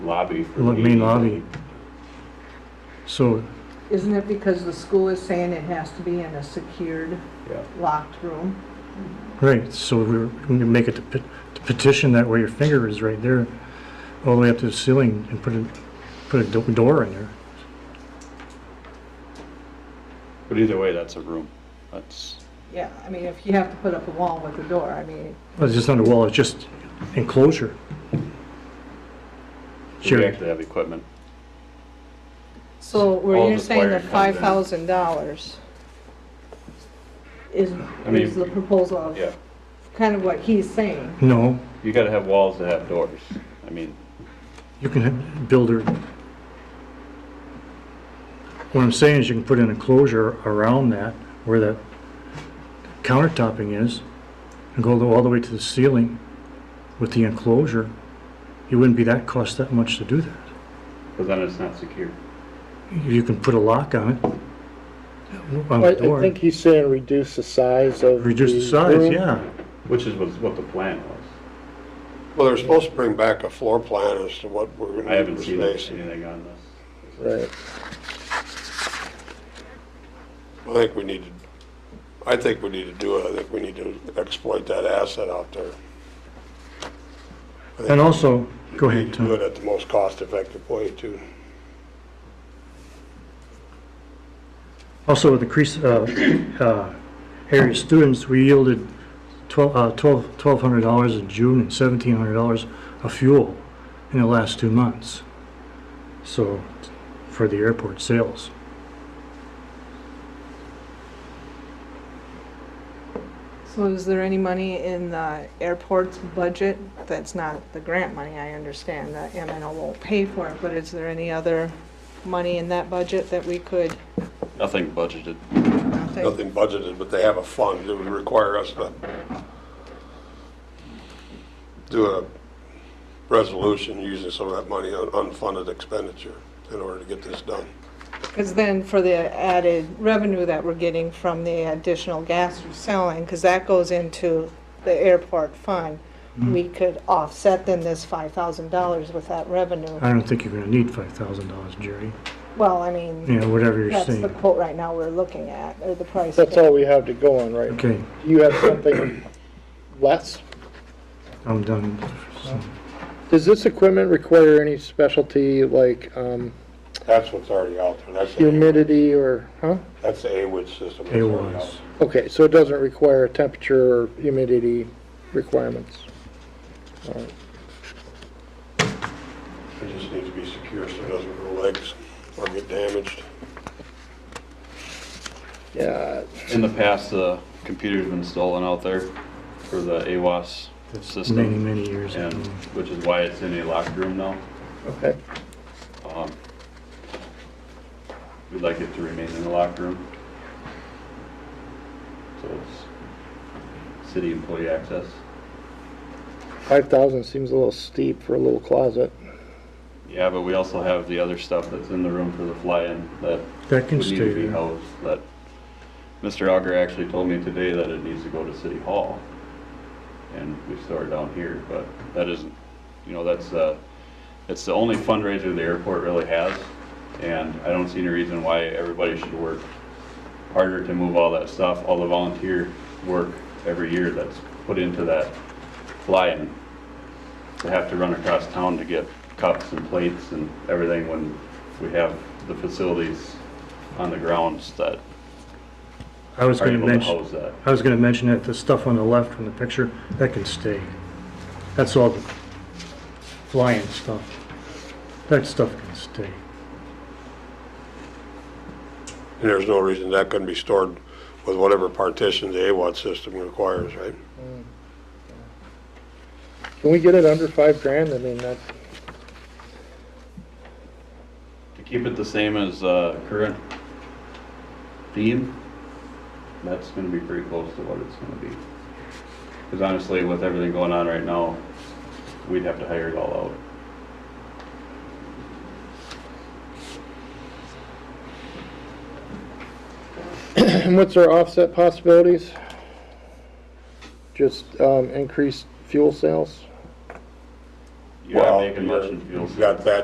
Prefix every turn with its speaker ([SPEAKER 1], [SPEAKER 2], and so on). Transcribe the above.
[SPEAKER 1] lobby for
[SPEAKER 2] Lo-
[SPEAKER 1] the
[SPEAKER 2] main
[SPEAKER 1] ADU.
[SPEAKER 2] lobby. So,
[SPEAKER 3] Isn't it because the school is saying it has to be in a secured,
[SPEAKER 1] Yeah.
[SPEAKER 3] locked room?
[SPEAKER 2] right, so we're, we can make it to pe- to petition that where your finger is right there, all the way up to the ceiling and put a, put a do- door in there.
[SPEAKER 4] But either way, that's a room. That's,
[SPEAKER 3] Yeah, I mean, if you have to put up a wall with a door, I mean,
[SPEAKER 2] Well, It's just not a wall, it's just enclosure.
[SPEAKER 4] we
[SPEAKER 2] Sure,
[SPEAKER 4] actually have equipment.
[SPEAKER 3] so
[SPEAKER 4] All
[SPEAKER 3] where you're
[SPEAKER 4] this
[SPEAKER 3] saying
[SPEAKER 4] wiring
[SPEAKER 3] that five
[SPEAKER 4] comes
[SPEAKER 3] thousand dollars is,
[SPEAKER 4] I mean-
[SPEAKER 3] is the proposal of
[SPEAKER 4] Yeah.
[SPEAKER 3] kind of what he's saying.
[SPEAKER 2] no,
[SPEAKER 4] You gotta have walls that have doors. I mean,
[SPEAKER 2] you can have- build a. What I'm saying is you can put an enclosure around that, where that countertopping is, and go all the way to the ceiling with the enclosure. It wouldn't be that, cost that much to do that.
[SPEAKER 4] because then it's not secure.
[SPEAKER 2] You can put a lock on it. On the
[SPEAKER 5] I I
[SPEAKER 2] door,
[SPEAKER 5] think he's saying reduce the size of.
[SPEAKER 2] reduce the size,
[SPEAKER 5] room.
[SPEAKER 2] yeah.
[SPEAKER 4] Which is was what the plan was.
[SPEAKER 6] Well, they're supposed to bring back a floor plan as to what we're
[SPEAKER 4] I
[SPEAKER 6] gonna do
[SPEAKER 4] haven't
[SPEAKER 6] for
[SPEAKER 4] seen
[SPEAKER 6] space.
[SPEAKER 4] anything on this.
[SPEAKER 5] Right.
[SPEAKER 6] I think we need to, I think we need to do it, I think we need to exploit that asset out there.
[SPEAKER 2] And also, go
[SPEAKER 6] We
[SPEAKER 2] ahead,
[SPEAKER 6] need to do
[SPEAKER 2] Tom.
[SPEAKER 6] it at the most cost-effective way too.
[SPEAKER 2] Also, with increased uh, uh, area of students, we yielded twelve uh, twelve- $1,200 in June and $1,700 of fuel in the last two months. So, for the airport sales.
[SPEAKER 3] So is there any money in the airport's budget? That's not the grant money, I understand, that MNO won't pay for it, but is there any other money in that budget that we could? uh,
[SPEAKER 4] Nothing budgeted.
[SPEAKER 6] Nothing budgeted, but they have a fund that would require us to do a resolution using some of that money on unfunded expenditure in order to get this done.
[SPEAKER 3] Because then for the added revenue that we're getting from the additional gas we're selling, because that goes into the airport fund, we could offset then this five thousand dollars with that revenue.
[SPEAKER 2] I don't think you're going to need $5,000, Jerry.
[SPEAKER 3] Well, I
[SPEAKER 2] You
[SPEAKER 3] mean,
[SPEAKER 2] know, whatever you're
[SPEAKER 3] that's the
[SPEAKER 2] saying.
[SPEAKER 3] quote right now we're looking at, or the price.
[SPEAKER 5] That's all we have to go on, right?
[SPEAKER 2] Okay,
[SPEAKER 5] Do you have something less?
[SPEAKER 2] I'm done.
[SPEAKER 5] Does this equipment require any specialty like um,
[SPEAKER 6] That's what's already out there, that's, the-
[SPEAKER 5] humidity or, huh?
[SPEAKER 6] that's the AWIT system. that's
[SPEAKER 2] It
[SPEAKER 6] already out
[SPEAKER 2] was.
[SPEAKER 6] there.
[SPEAKER 5] Okay, so it doesn't require temperature or humidity requirements.
[SPEAKER 6] It just needs to be secure so it doesn't grow legs or get damaged.
[SPEAKER 5] Yeah,
[SPEAKER 4] In the past, the computer's been stolen out there for the AWAS
[SPEAKER 2] Many,
[SPEAKER 4] system.
[SPEAKER 2] many years
[SPEAKER 4] And,
[SPEAKER 2] ago.
[SPEAKER 4] which is why it's in a locked room now.
[SPEAKER 5] okay.
[SPEAKER 4] Um, We'd like it to remain in the locker room. So it's city employee access.
[SPEAKER 5] 5,000 seems a little steep for a little closet.
[SPEAKER 4] Yeah, but we also have the other stuff that's in the room for the fly-in that
[SPEAKER 2] That
[SPEAKER 4] would
[SPEAKER 2] can
[SPEAKER 4] need
[SPEAKER 2] stay
[SPEAKER 4] to be
[SPEAKER 2] there.
[SPEAKER 4] housed, that Mr. Auger actually told me today that it needs to go to City Hall. And we store it down here, but that isn't, you know, that's, uh, it's the only fundraiser the airport really has. And I don't see any reason why everybody should work harder to move all that stuff, all the volunteer work every year that's put into that fly-in. To have to run across town to get cups and plates and everything when we have the facilities on the grounds that
[SPEAKER 2] I was
[SPEAKER 4] are
[SPEAKER 2] going
[SPEAKER 4] able
[SPEAKER 2] to
[SPEAKER 4] to
[SPEAKER 2] mention.
[SPEAKER 4] house that.
[SPEAKER 2] I was gonna mention that the stuff on the left from the picture, that can stay. That's all the flying stuff. That stuff can stay.
[SPEAKER 6] And there's no reason that couldn't be stored with whatever partition the AWAT system requires, right?
[SPEAKER 5] Can we get it under five grand? I mean, that,
[SPEAKER 4] To keep it the same as uh, current theme, that's gonna be pretty close to what it's gonna be. Because honestly, with everything going on right now, we'd have to hire it all out.
[SPEAKER 5] And what's our offset possibilities? Just um, increased fuel sales?
[SPEAKER 4] you're not
[SPEAKER 6] Well,
[SPEAKER 4] making much in
[SPEAKER 6] you're-
[SPEAKER 4] fuel
[SPEAKER 6] You've got
[SPEAKER 4] savings.
[SPEAKER 6] that